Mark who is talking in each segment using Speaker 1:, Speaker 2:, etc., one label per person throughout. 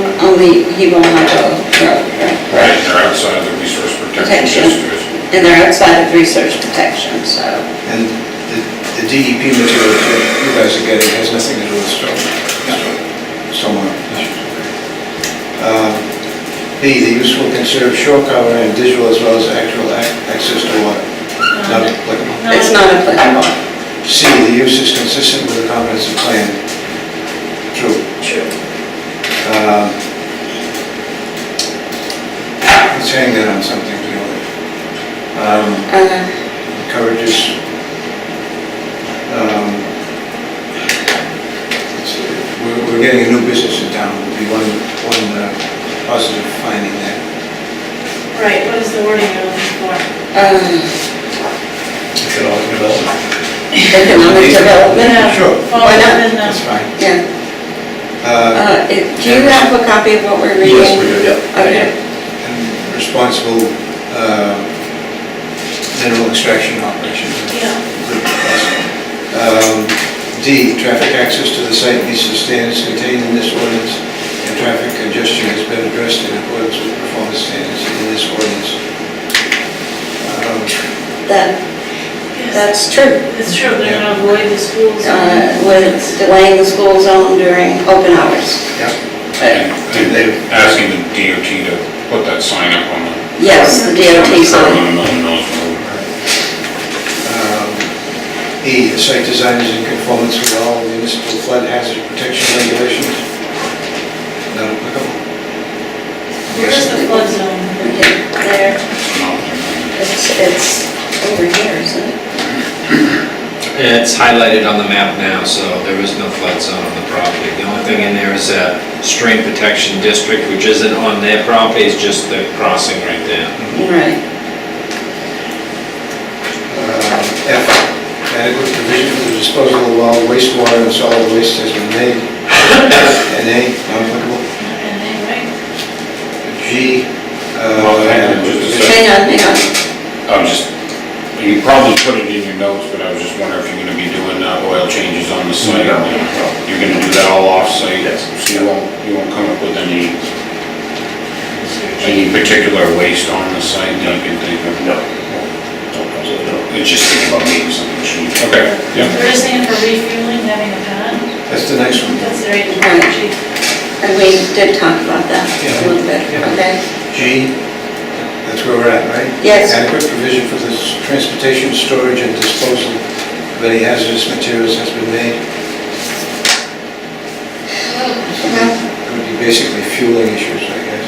Speaker 1: legally, he will not go rogue, right?
Speaker 2: Right, they're outside the resource
Speaker 1: Protection.
Speaker 2: protection district.
Speaker 1: And they're outside of research protection, so,
Speaker 3: And the- the DEP material that you guys are getting has nothing to do with storm, stormwater. Um, B, the use will consider shore cover and digital as well as actual ac- access to water, not applicable.
Speaker 1: it's not applicable.
Speaker 3: C, the use is consistent with the comprehensive plan. True.
Speaker 1: True.
Speaker 3: Um, Let's hang that on something, you know. Um,
Speaker 1: Uh,
Speaker 3: encourages, um, it's- we're, we're getting a new business in town, would be one, one uh, positive finding there.
Speaker 4: Right, what is the wording you're looking for?
Speaker 1: um,
Speaker 3: Economic development.
Speaker 1: Economic
Speaker 4: uh,
Speaker 1: development,
Speaker 3: Sure,
Speaker 4: Well,
Speaker 1: Why not?
Speaker 4: then,
Speaker 3: that's
Speaker 4: uh,
Speaker 3: fine.
Speaker 1: yeah.
Speaker 3: Uh,
Speaker 1: Uh, it- Do you have a copy of what we're reading?
Speaker 5: Yes, we do, yeah.
Speaker 1: Okay,
Speaker 3: and responsible, uh, mineral extraction operations.
Speaker 4: Yeah,
Speaker 3: Um, D, traffic access to the site meets the standards contained in this ordinance, and traffic congestion has been addressed in accordance with performance standards in this ordinance. Um,
Speaker 1: that,
Speaker 4: yes,
Speaker 1: that's true.
Speaker 4: it's true, they're gonna avoid the schools.
Speaker 1: Uh, With delaying the school zone during open hours.
Speaker 3: yeah,
Speaker 1: But
Speaker 2: And they're asking the DOT to put that sign up on the.
Speaker 1: Yes, the DOT
Speaker 2: curb
Speaker 1: sign.
Speaker 2: On Milton Mills Road.
Speaker 3: um, E, the site design is in conformance with all municipal flood hazard protection regulations. Not applicable.
Speaker 4: Where's the flood zone?
Speaker 1: Okay, There,
Speaker 2: It's not-
Speaker 1: it's, it's over here, isn't it?
Speaker 5: It's highlighted on the map now, so there is no flood zone on the property. The only thing in there is a stream protection district, which isn't on their property, it's just the crossing right there.
Speaker 1: Right.
Speaker 3: Uh, F, adequate provision for the disposal of all wastewater and solid waste has been made. And A, not applicable.
Speaker 4: And they, right,
Speaker 3: G,
Speaker 2: Well, hang
Speaker 3: uh,
Speaker 2: on just a second.
Speaker 1: Hang on, hang on.
Speaker 2: I'm just, you probably put it in your notes, but I was just wondering if you're gonna be doing uh, oil changes on the site.
Speaker 6: No.
Speaker 2: You're gonna do that all off-site?
Speaker 6: Yes.
Speaker 2: So you won't, you won't come up with any, any particular waste on the site that you can think of?
Speaker 6: No.
Speaker 2: It's just think about maybe something cheap. Okay, yeah.
Speaker 4: they're just saying for refueling, having a pad,
Speaker 3: that's the nice one.
Speaker 4: that's the right
Speaker 1: Right.
Speaker 4: analogy. Um,
Speaker 1: And we did talk about that a little bit,
Speaker 3: Yeah.
Speaker 1: okay?
Speaker 3: G, that's where we're at, right?
Speaker 1: Yes.
Speaker 3: Adequate provision for the s- transportation, storage, and disposal of any hazardous materials has been made. It would be basically fueling issues, I guess.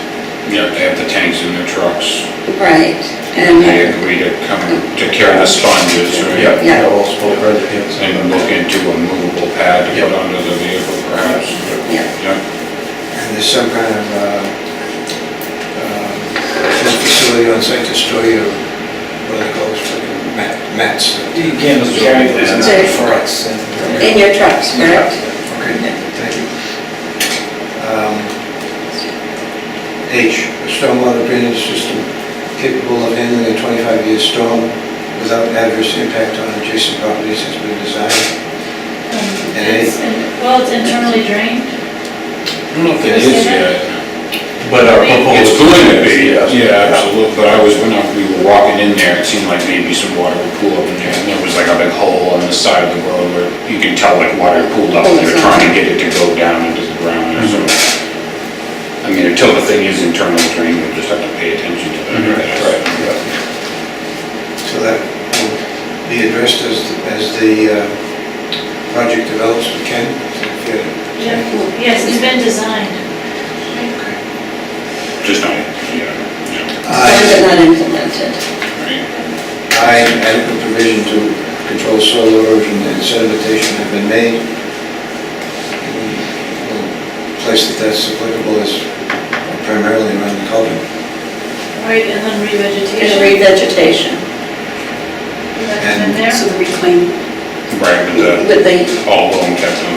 Speaker 2: Yeah, they have the tanks in their trucks.
Speaker 1: Right,
Speaker 6: Mm-hmm.
Speaker 2: They
Speaker 1: and,
Speaker 2: agree to come, to carry the sponges, right?
Speaker 6: Yeah,
Speaker 1: Yeah.
Speaker 6: yeah, all spoke right at the end.
Speaker 2: And look into a movable pad to put
Speaker 6: Yeah.
Speaker 2: under the vehicle perhaps.
Speaker 1: yeah,
Speaker 2: Yeah,
Speaker 3: And there's some kind of, uh, um, some facility on site to store your, what are they called, fucking mat- mats?
Speaker 7: Again, it's very, it's
Speaker 1: Okay.
Speaker 7: for us. and-
Speaker 1: in your trucks, correct?
Speaker 3: Okay, thank you. Um, H, a stormwater drainage system capable of handling a 25-year storm without adverse impact on adjacent properties has been designed.
Speaker 4: Um,
Speaker 3: And they-
Speaker 4: it's in- Well, it's internally drained,
Speaker 2: I don't know if it is yet.
Speaker 6: But our proposal.
Speaker 2: It's going to be,
Speaker 6: Oh, Yes.
Speaker 2: yeah, absolutely, but I was, when I- we were walking in there, it seemed like maybe some water would pool up in there, and there was like a big hole on the side of the road where you can tell like water pooled up, and they're trying to get it to go down into the ground or
Speaker 6: Mm-hmm.
Speaker 2: something. I mean, until the thing is internal drain, we'll just have to pay attention to
Speaker 6: Mm-hmm. Right,
Speaker 2: that.
Speaker 6: right, yeah.
Speaker 3: So that will be addressed as, as the uh, project develops, we can.
Speaker 4: Yeah. yes, it's been designed.
Speaker 2: Just not, yeah, yeah,
Speaker 1: Or is it not implemented?
Speaker 2: right.
Speaker 3: I, adequate provision to control soil erosion and sedimentation have been made. The Place that that's applicable is primarily around the culvert.
Speaker 4: Right, and then
Speaker 1: There's
Speaker 4: revegetation.
Speaker 1: revegetation
Speaker 4: That's been there. Oh,
Speaker 1: So the reclaim
Speaker 2: Right, with
Speaker 1: with the,
Speaker 2: the, all loam kept
Speaker 4: Oh,
Speaker 2: on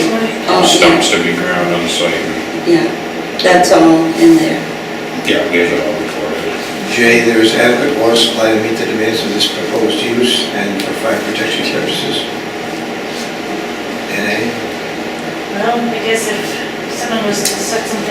Speaker 1: Site.
Speaker 4: right.
Speaker 1: Oh, yeah.
Speaker 2: stumps to be ground on site,
Speaker 1: yeah, that's all in there.
Speaker 2: yeah, we had it all recorded.
Speaker 3: J, there is adequate water supply to meet the demands of this proposed use and for fire protection purposes. And A.
Speaker 4: Well, I guess if someone was to suck something